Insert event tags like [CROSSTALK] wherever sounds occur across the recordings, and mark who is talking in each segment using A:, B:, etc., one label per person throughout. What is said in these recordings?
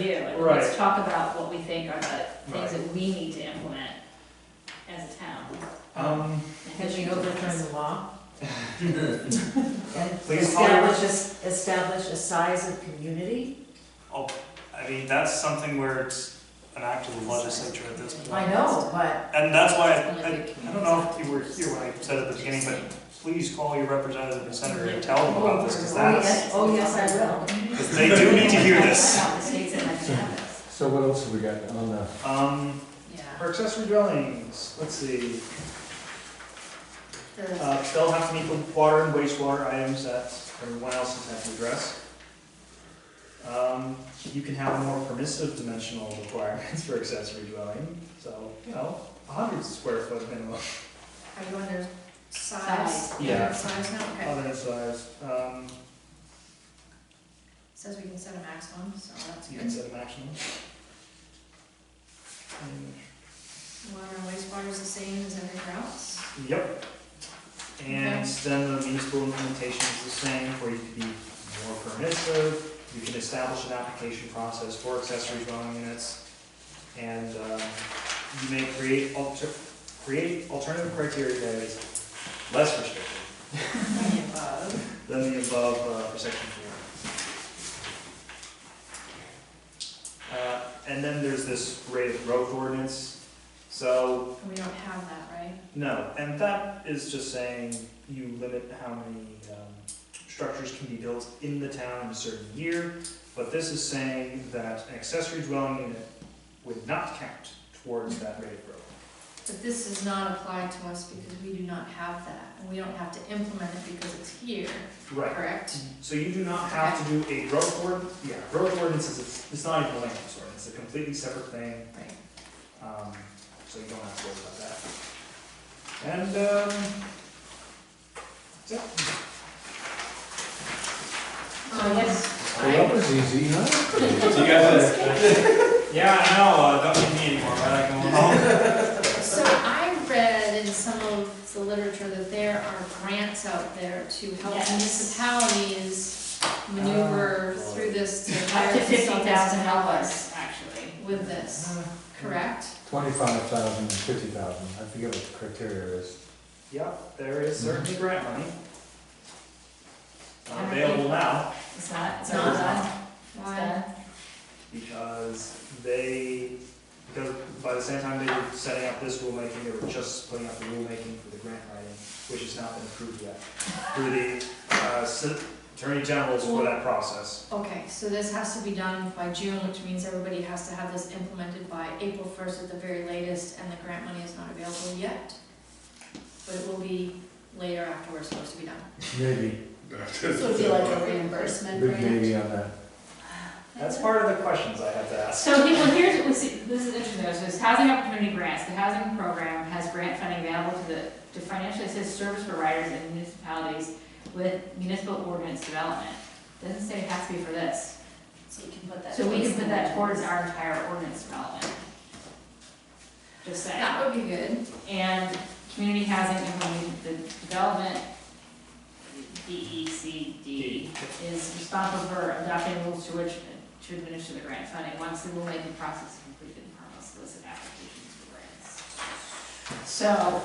A: it.
B: Right.
A: Let's talk about what we think are the
B: Right.
A: things that we need to implement as a town.
B: Um,
C: Can we overturn the
B: [LAUGHS]
C: law? And
B: Please call your-
C: establish, a- establish a size of community?
B: I mean, that's something where it's an act of the legislature at this point.
C: I know, but
B: And that's why, I, I- I don't know if you were here when I said at the beginning, but please call your representative and senator and tell them about this, because
C: Oh,
B: that's,
C: yes. oh, I will.
B: because they do need to hear this.
A: Wow, the state's in my campus.
D: So what else have we got on the,
B: Um,
A: Yeah.
B: for accessory dwellings, let's see,
A: The-
B: uh, they'll have to meet with water and wastewater items that everyone else has had to address. Um, you can have more permissive dimensional requirements for accessory dwelling, so, you know, a hundred square foot minimum.
E: Are you under size?
A: Size.
B: Yeah.
E: Size now, okay.
B: Other than size, um,
E: Says we can set a maximum, so that's
B: you
E: good.
B: can set a maximum.
E: Water and wastewater is the same as everywhere else.
B: And- Yep. And then the municipal implementation is the same, where you can be more permissive, you can establish an application process for accessory dwelling units. And, um, you may create alter, create alternative criteria that is less restrictive
E: Any above.
B: than the above uh, for section four. Uh, And then there's this rate of growth ordinance. So,
E: And we don't have that, right?
B: no, and that is just saying you limit how many um, structures can be built in the town in a certain year. But this is saying that an accessory dwelling unit would not count towards that rate of growth.
E: But this is not applied to us because we do not have that. And we don't have to implement it because it's here,
B: Right.
E: correct?
B: So you do not have to do a growth ord, yeah, growth ordinance is, it's not even a land use ordinance, it's a completely separate thing.
E: Right.
B: Um, so you don't have to worry about that. And, um, that's it.
A: So yes.
D: well, that was easy, huh?
F: So you guys Yeah, I know, uh, don't need me anymore, right? I can walk.
E: So I read in some of the literature that there are grants out there to help
A: Yes.
E: municipalities maneuver
B: Ah.
E: through this to
A: Up
E: hire
A: to fifty thousand
E: consultants
A: dollars, actually.
E: with
D: Ah.
E: this, correct?
D: Twenty-five thousand, fifty thousand, I forget what the criteria is.
B: [LAUGHS] Yep, there is certainly grant money. Not
A: Alright.
B: Available now,
A: It's not, it's
E: Not
A: not done. It's
E: Why?
A: done.
B: because they, because by the same time they were setting up this rulemaking, they were just putting out the rulemaking for the grant writing, which has not been approved yet, through the, uh, Sen- Attorney General's for that process.
E: Okay, so this has to be done by June, which means everybody has to have this implemented by April first at the very latest, and the grant money is not available yet. But it will be later after we're supposed to be done.
D: Maybe,
G: This would be like a reimbursement
D: big
G: grant.
D: maybe on that.
B: That's part of the questions I have to ask.
A: So he- well, here's, let's see, this is interesting, though. so this housing opportunity grants, the housing program has grant funding available to the, to financially assist service providers and municipalities with municipal ordinance development. Doesn't say it has to be for this,
G: So you can put that.
A: so we can put that towards
G: towards-
A: our entire ordinance development. Just saying.
E: That would be good.
A: And community housing implement, the development, E DECD, is responsible for adopting rules to which, to administer the grant funding. Once the rulemaking process is completed, Department will solicit applications for grants. So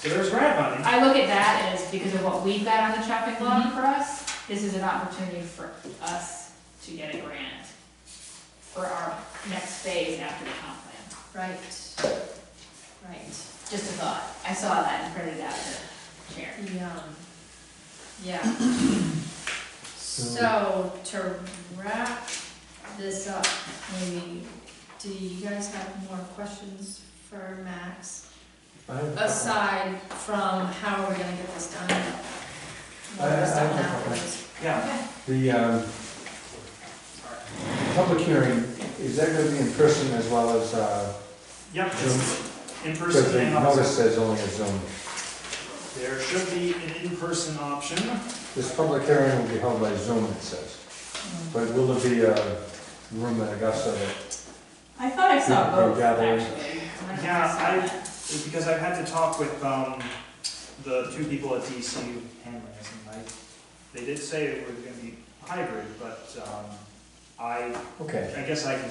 B: So there's grant money.
A: I look at that as, because of what we've got on the chopping block for us, this is an opportunity for us to get a grant for our next phase after the comp plan.
E: Right. Right.
A: Just a thought. I saw that and printed it out to share.
E: Yeah.
D: [CLEARS THROAT]
E: Yeah. So to wrap this up, maybe, do you guys have more questions for Max?
D: I have a couple.
E: Aside from how are we gonna get this done? What
D: I- I
E: was done
D: have a couple.
E: afterwards?
B: Yeah.
D: The, um, public hearing, is that gonna be in person as well as, uh,
B: Yep.
D: Zoom?
B: In
D: because
B: person
D: the
B: and
D: notice
B: option.
D: says only a Zoom.
B: There should be an in-person option.
D: This public hearing will be held by Zoom, it says. But will there be a room in Augusta that,
A: I thought I saw
D: You're- you're
A: both,
D: gathering.
A: actually. I'm not
B: Yeah,
A: sure
B: I-
A: saw that.
B: It's because I've had to talk with, um, the two people at DCU, Hanley, I think, Mike. They did say it was gonna be hybrid, but, um, I,
D: okay.
B: I guess I can